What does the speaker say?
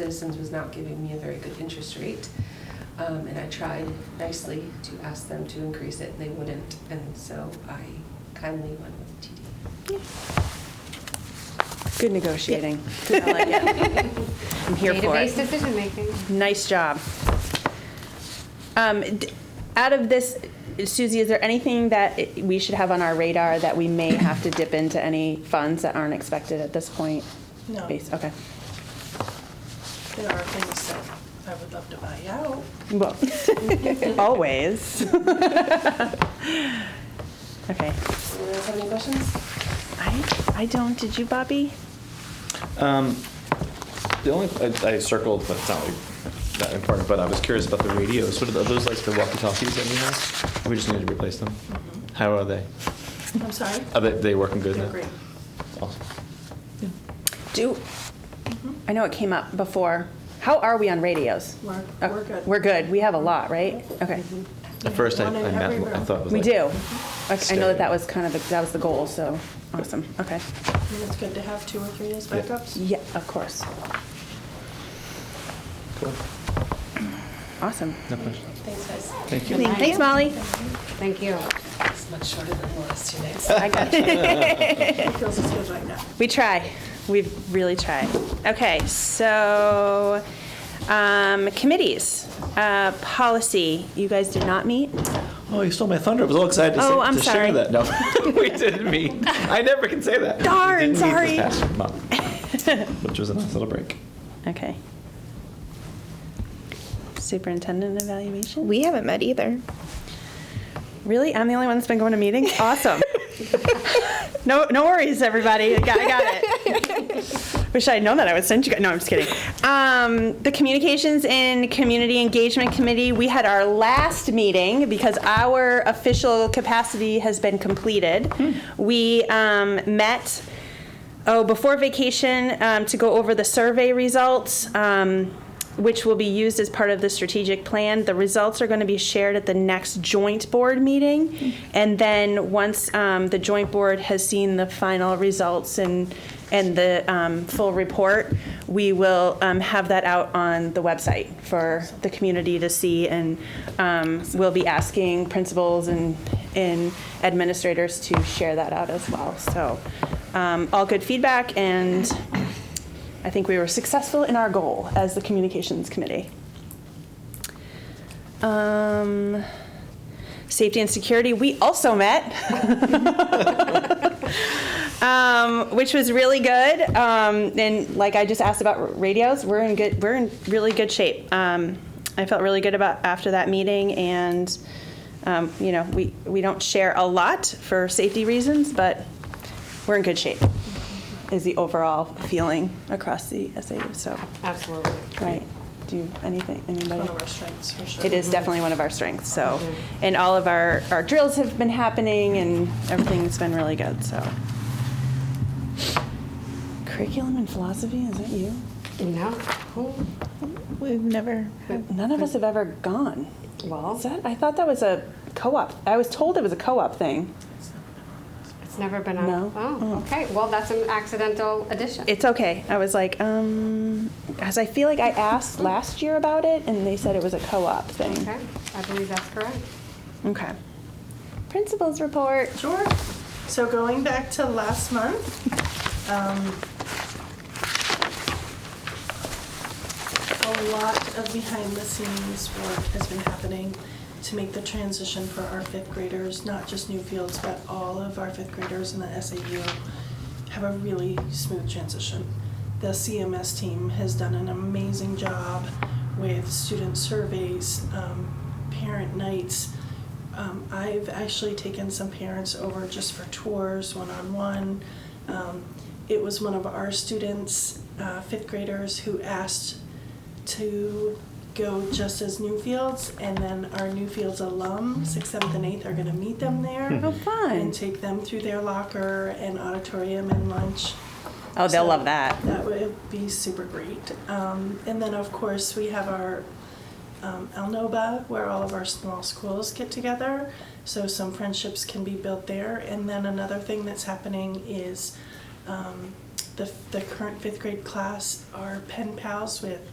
Citizens was not giving me a very good interest rate. Um, And I tried nicely to ask them to increase it, and they wouldn't. And so I kindly went with TD. Good negotiating. I like it. I'm here for Database it. decision making. Nice job. Um, d- Out of this, Susie, is there anything that i- we should have on our radar that we may have to dip into any funds that aren't expected at this point? No. Base- Okay. There are things that I would love to buy out. Well, always. Okay. Anyone else have any questions? I, I don't, did you, Bobby? Um, The only, I I circled, but it's not like that important, but I was curious about the radios. What are the- are those like the walkie-talkies that we have? We just need to replace them? How are they? I'm sorry? Are they, they working good now? They're great. Awesome. Do, I know it came up before. How are we on radios? We're, Oh, we're good. Mm-hmm. We're good. We have a lot, right? Okay. At first, I One in I every meant, I room. thought it was We like. do. Like, I know that that stereo. was kind of, the- that was the goal, so, awesome, okay. And it's good to have two or three as Yeah. backups. Yeah, of course. Cool. Awesome. No question. Thanks, guys. Thank you. Thanks, Molly. Thank you. It's much shorter than the last two nights. I got you. It feels as good right now. We try. We really try. Okay, so, um, committees, uh, policy, you guys did not meet? Oh, you stole my thunder. I was all excited to Oh, say, I'm to share sorry. that. No, we didn't meet. I never can say that. We Darn, didn't meet this sorry. past month, Which was a nice little break. Okay. Superintendent evaluation? We haven't met either. Really? I'm the only one that's been going to meetings? Awesome. No, no worries, everybody. I got, I got it. Wish I would known that. I would send you. guys- No, I'm just kidding. Um, the Communications and Community Engagement Committee. We had our last meeting because our official capacity has been completed. We um, met. Oh, before vacation um, to go over the survey results. Um, which will be used as part of the strategic plan. The results are going to be shared at the next joint board meeting. And then, once um, the joint board has seen the final results and, and the um, full report, we will um, have that out on the website for the community to see. And um, we'll be asking principals and, and administrators to share that out as well. So, um, all good feedback and I think we were successful in our goal as the communications committee. Um, safety and security, we also met, um, which was really good. Um, and like I just asked about radios, we're in good, we're in really good shape. Um, I felt really good about after that meeting, and um, you know, we we don't share a lot for safety reasons, but we're in good shape. Is the overall feeling across the SAU? So, Absolutely. right? Do you, anything? Anybody? One of our strengths, for sure. It is definitely one of our strengths, so, and all of our, our drills have been happening and everything's been really good, so. Curriculum and philosophy, is that you? No. Who? We've never. had- None of us have ever gone. Is Well, that, I thought that was a co-op, I was told it was a co-op thing. it's never been on. No. Oh, okay. Well, that's an accidental addition. It's okay, I was like, um, as I feel like I asked last year about it and they said it was a co-op thing. Okay. I believe that's correct. Okay. Principals report. Sure. So going back to last month, um, a lot of behind the scenes work has been happening to make the transition for our fifth graders, not just Newfields, but all of our fifth graders in the SAU have a really smooth transition. The CMS team has done an amazing job with student surveys, um, parent nights. Um, I've actually taken some parents over just for tours, one on one. Um, it was one of our students, uh, fifth graders, who asked to go just as Newfields, and then our Newfields alum, sixth, seventh, and eighth, are going to meet them there How fun. and take them through their locker and auditorium and lunch. Oh, they'll So love that. That would be super great. Um, and then, of course, we have our um, El Noba, where all of our small schools get together. So some friendships can be built there. And then another thing that's happening is um, the, the current fifth grade class are pen pals with